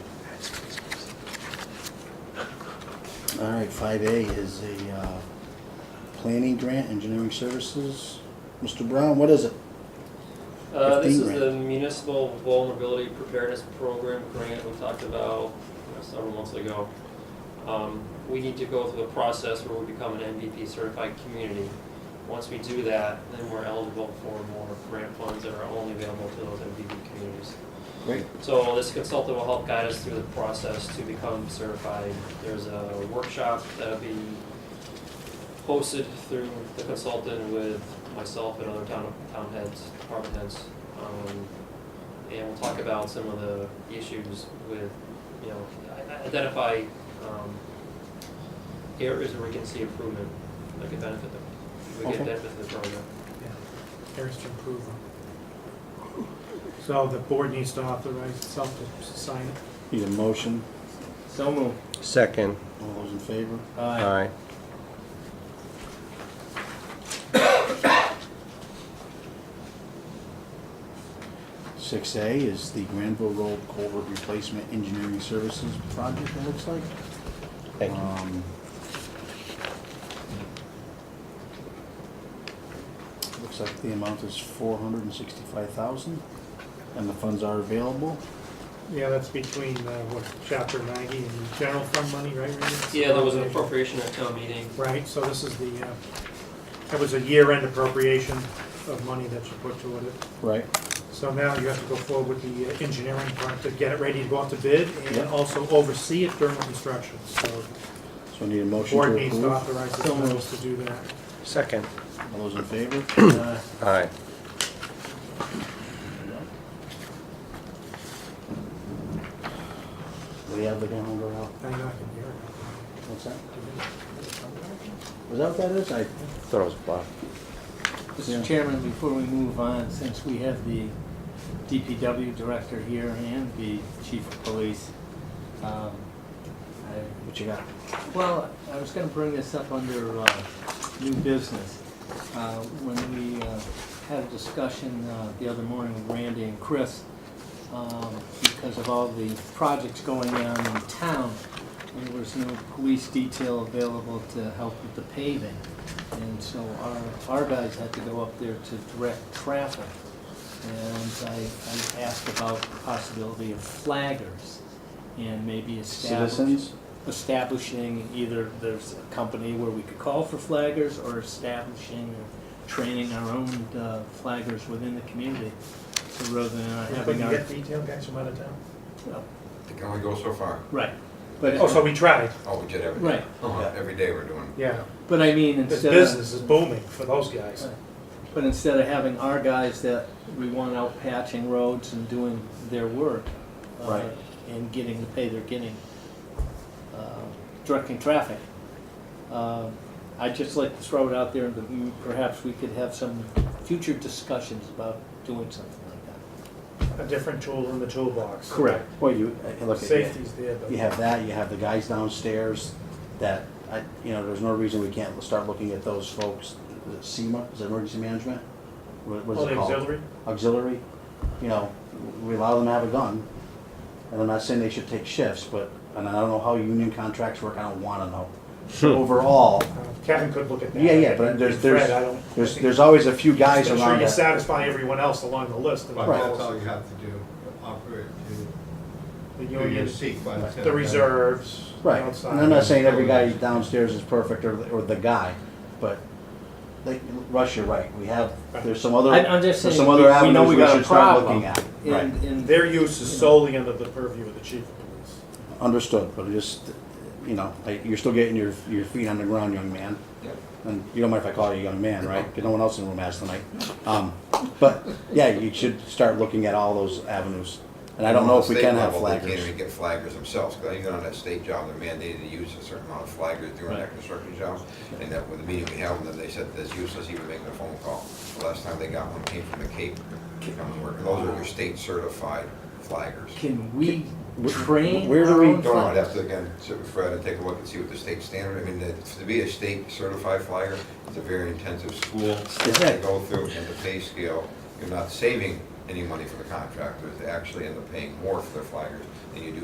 All right, five A is a, uh, planning grant, engineering services. Mr. Brown, what is it? Uh, This 15 is the Municipal Vulnerability Preparedness Program grant we talked about you know, several months ago. Um, We need to go through the process where we become an MVP certified community. Once we do that, then we're eligible for more grant funds that are only available to those MVP communities. Great. So this consultant will help guide us through the process to become certified. There's a workshop that'll be hosted through the consultant with myself and other town, town heads, department heads. Um, And we'll talk about some of the issues with, you know, i- identify, um, areas where we can see improvement, that could benefit them. We Okay. can benefit the program. areas to improve on. So the board needs to authorize itself to sign it. Need a motion? So moved. Second, All those in favor? aye. Six A is the Granville Road Culvert Replacement Engineering Services Project, it looks like. Thank you. Um, Looks like the amount is four hundred and sixty-five thousand, and the funds are available. Yeah, that's between, uh, what, chapter ninety and general fund money, right? Randy? Yeah, there was an appropriation at town meeting, Right, so this is the, uh, that was a year-end appropriation of money that you put toward it. Right. So now you have to go forward with the uh, engineering part to get it ready to go out to bid and Yeah. also oversee it during construction. So So I need a the motion board to needs to approve. authorize itself to do that. Second, All those in favor? Uh, Aye. aye. We have the calendar out. I know I can hear it. What's that? Was that what that is? I, Thought it was Bob. Yeah. Mr. Chairman, before we move on, since we have the DPW director here and the chief of police, um, I- what you got? well, I was gonna bring this up under uh, new business. Uh, When we uh, had a discussion uh, the other morning with Randy and Chris, um, because of all the projects going on in town, there was no police detail available to help with the paving. And so our, our guys had to go up there to direct traffic. And I, I asked about the possibility of flaggers and maybe establish. Citizens? Establishing either there's a company where we could call for flaggers or establishing or training our own uh, flaggers within the community. So rather than uh, having our detail guys from out of town? well, It can only go so far. Right, but, Oh, so we tried, Oh, we did every day. right, Uh-huh, Every day we're doing. yeah. but I mean, This uh, instead of, business is booming for those guys. but instead of having our guys that we want out patching roads and doing their work. uh, Right. And getting the pay they're getting, uh, directing traffic. Uh, I'd just like to throw it out there that we- perhaps we could have some future discussions about doing something like that. A different tool in the toolbox. Well, you, uh, look, at Safety's there, but. you have that, you have the guys downstairs that, I, you know, there's no reason we can't start looking at those folks. Is it SEMA, is it emergency management? What what is Oh, the it called? auxiliary? auxiliary, you know, we allow them to have a gun. And I'm not saying they should take shifts, but, and I don't know how union contracts work, I don't wanna know. But Overall, Uh, Kevin could look at that. yeah, yeah, but there's, Fred, I there's, don't- there's, there's always a few guys I'm sure around you that. satisfy everyone else along the list. and But Right. that's all you have to do, operate The to, to your union, seat by the tenth. the reserves. Right, outside. and I'm not saying every guy downstairs is perfect or, or the guy, but, like, Russ, you're right, we have, there's some other, I- I'm just there's saying, some we other we know avenues we we got a should start problem. looking at. Right, And, and Their use is solely under the purview of the chief of police. understood, but just, you know, like, you're still getting your, your feet on the ground, young man. Yep. and you don't mind if I call you a young man, right? Because no one else in the room has tonight. Um, but yeah, you should start looking at all those avenues. And I don't know if we State can have level, They can't flaggers. even get flaggers themselves, because even on that state job, they're mandated to use a certain amount of flaggers during that construction job. And that, with the meeting we held, then they said that's useless even making a phone call. The last time they got one came from the Cape, to come and work. And those are your state certified flaggers. can we Where- train where do our we- own Don't know, I'd flaggers? have to again, sit with Fred and take a look and see what the state standard, I mean, that- to be a state certified flagger, it's a very intensive school. Yeah. to go through and the pay scale, you're not saving any money for the contractors, they actually end up paying more for their flaggers than you do